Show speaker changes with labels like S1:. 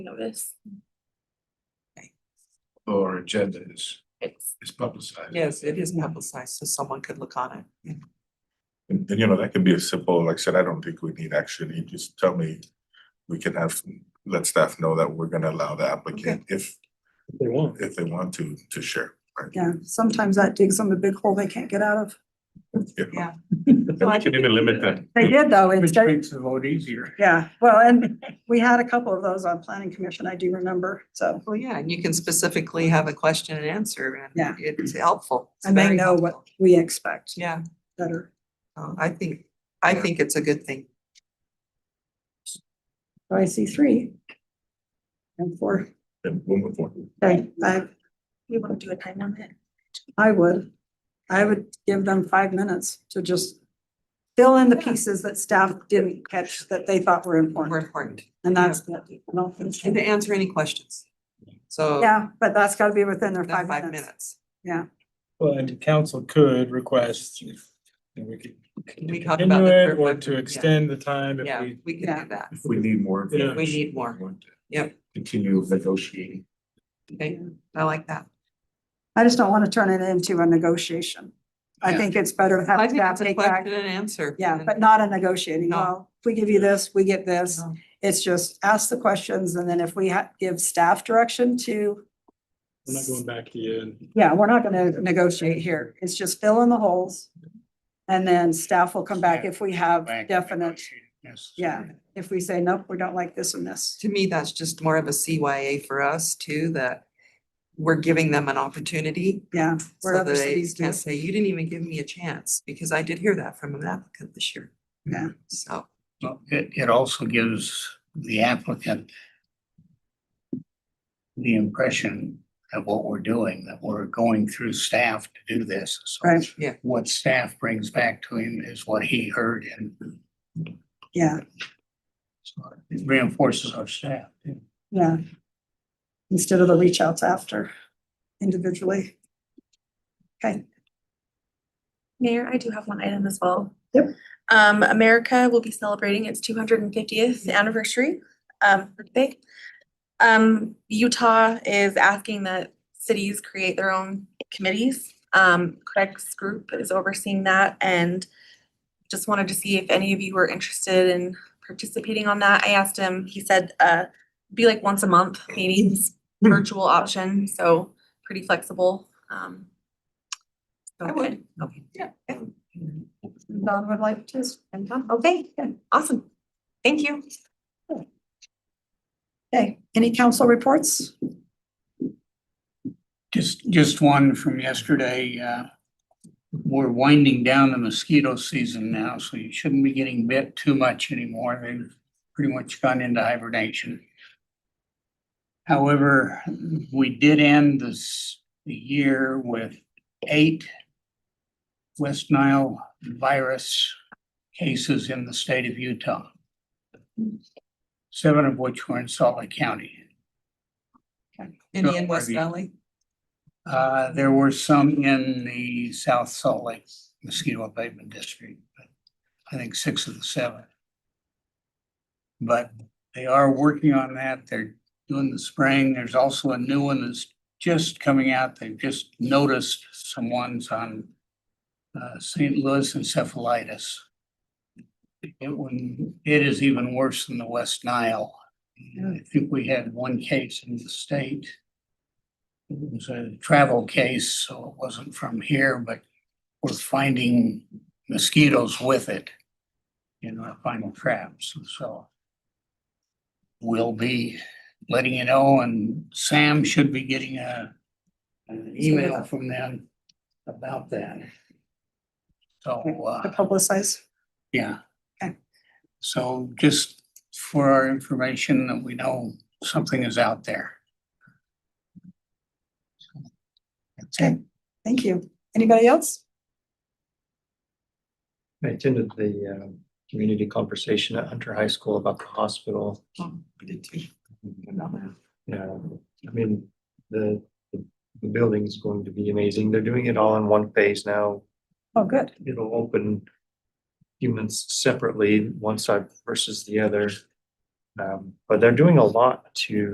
S1: notice.
S2: Our agenda is,
S1: It's,
S2: is publicized.
S3: Yes, it is publicized, so someone could look on it.
S4: And, and you know, that can be as simple, like I said, I don't think we need action, you just tell me, we can have, let staff know that we're gonna allow the applicant if,
S5: They won't.
S4: if they want to, to share. right?
S6: Yeah, sometimes that digs them a big hole they can't get out of.
S4: Yeah.
S3: So I
S4: We can even limit that.
S6: They did though,
S5: Which
S6: instead,
S5: makes the vote easier.
S6: yeah, well, and we had a couple of those on planning commission, I do remember, so.
S3: Well, Oh, yeah, and you can specifically have a question and answer and
S6: Yeah.
S3: it's helpful. It's
S6: And they
S3: very
S6: know
S3: helpful.
S6: what we expect
S3: Yeah,
S6: better.
S3: uh, I think, I
S4: Yeah.
S3: think it's a good thing.
S6: So I see three. And four,
S4: And one more point.
S6: okay, five. We want to do a time limit? I would, I would give them five minutes to just fill in the pieces that staff didn't catch that they thought were
S3: We're
S6: important.
S3: important.
S6: And that's, I don't think-
S3: And to answer any questions. So.
S6: yeah, but that's gotta be within their
S3: the
S6: five
S3: Five
S6: minutes.
S3: minutes.
S5: Well, and council could request if, and we could.
S3: Can we
S5: to
S3: talk about the
S5: continue it
S3: third
S5: Or
S3: one?
S5: to
S3: Yeah.
S5: extend the time if
S3: Yeah,
S5: we,
S3: we can
S6: Yeah.
S3: do that.
S2: If we need more.
S5: Yeah.
S2: information,
S3: We need more.
S2: we want to
S3: Yep.
S2: Continue negotiating.
S3: Okay, I like that.
S6: I just don't want to turn it into a negotiation. I
S2: Yeah.
S6: think it's better to
S3: I
S6: have
S3: think
S6: staff
S3: it's a
S6: take
S3: question
S6: back.
S3: and answer.
S6: Yeah,
S3: and-
S6: but not a negotiating.
S3: No.
S6: Well, if we give you this, we get this.
S3: No.
S6: It's just ask the questions and then if we ha- give staff direction to,
S5: we're not going back to you and
S6: yeah, we're not going to negotiate here. It's just fill in the holes. And then staff will come back if we have definite,
S5: Yes.
S6: yeah, if we say, nope, we don't like this and this.
S3: To me, that's just more of a CYA for us too, that we're giving them an opportunity.
S6: Yeah. where
S3: So
S6: other
S3: that they
S6: cities do.
S3: can't say, you didn't even give me a chance, because I did hear that from an applicant this year.
S6: Yeah.
S3: So,
S7: Well, It, it also gives the applicant the impression of what we're doing, that we're going through staff to do this. So
S6: Right.
S3: Yeah.
S7: What staff brings back to him is what he heard and
S6: Yeah,
S7: so it reinforces our staff.
S6: yeah. Instead of the reach outs after individually.
S1: Mayor, I do have one item as well.
S6: Yep.
S1: Um, America will be celebrating its two hundred and fiftieth anniversary, um, birthday. Um, Utah is asking that cities create their own committees. Um, Craig's group is overseeing that and just wanted to see if any of you were interested in participating on that. I asked him, he said, uh, be like once a month
S3: Mm-hmm.
S1: meetings, virtual option, so pretty flexible, um. so
S3: I would.
S1: good. Okay.
S6: Don would like to, and Don, okay, good.
S1: Awesome. Thank you.
S6: okay, any council reports?
S7: Just, just one from yesterday, uh, we're winding down the mosquito season now, so you shouldn't be getting bit too much anymore. They've pretty much gone into hibernation. However, we did end this, the year with eight West Nile virus cases in the state of Utah. Seven of which were in Salt Lake County.
S3: any
S7: Sure,
S3: in West
S7: Harvey.
S3: Valley?
S7: Uh, there were some in the South Salt Lake mosquito abatement district, but I think six of the seven. But they are working on that. They're doing the spraying. There's also a new one that's just coming out. They've just noticed some ones on uh, St. Louis encephalitis. It when, it is even worse than the West Nile. I think we had one case in the state. It was a travel case, so it wasn't from here, but we're finding mosquitoes with it. In our final traps, and so. We'll be letting you know, and Sam should be getting a, an email from them about that. So, uh.
S6: To publicize,
S7: Yeah.
S6: Okay.
S7: So just for our information that we know something is out there. That's it.
S6: thank you. Anybody else?
S5: I attended the um, community conversation at Hunter High School about the hospital.
S3: Oh, I did too.
S5: Yeah, I mean, the, the the building's going to be amazing. They're doing it all in one phase now.
S6: Oh, good,
S5: It'll open humans separately, one side versus the other. Um, But they're doing a lot to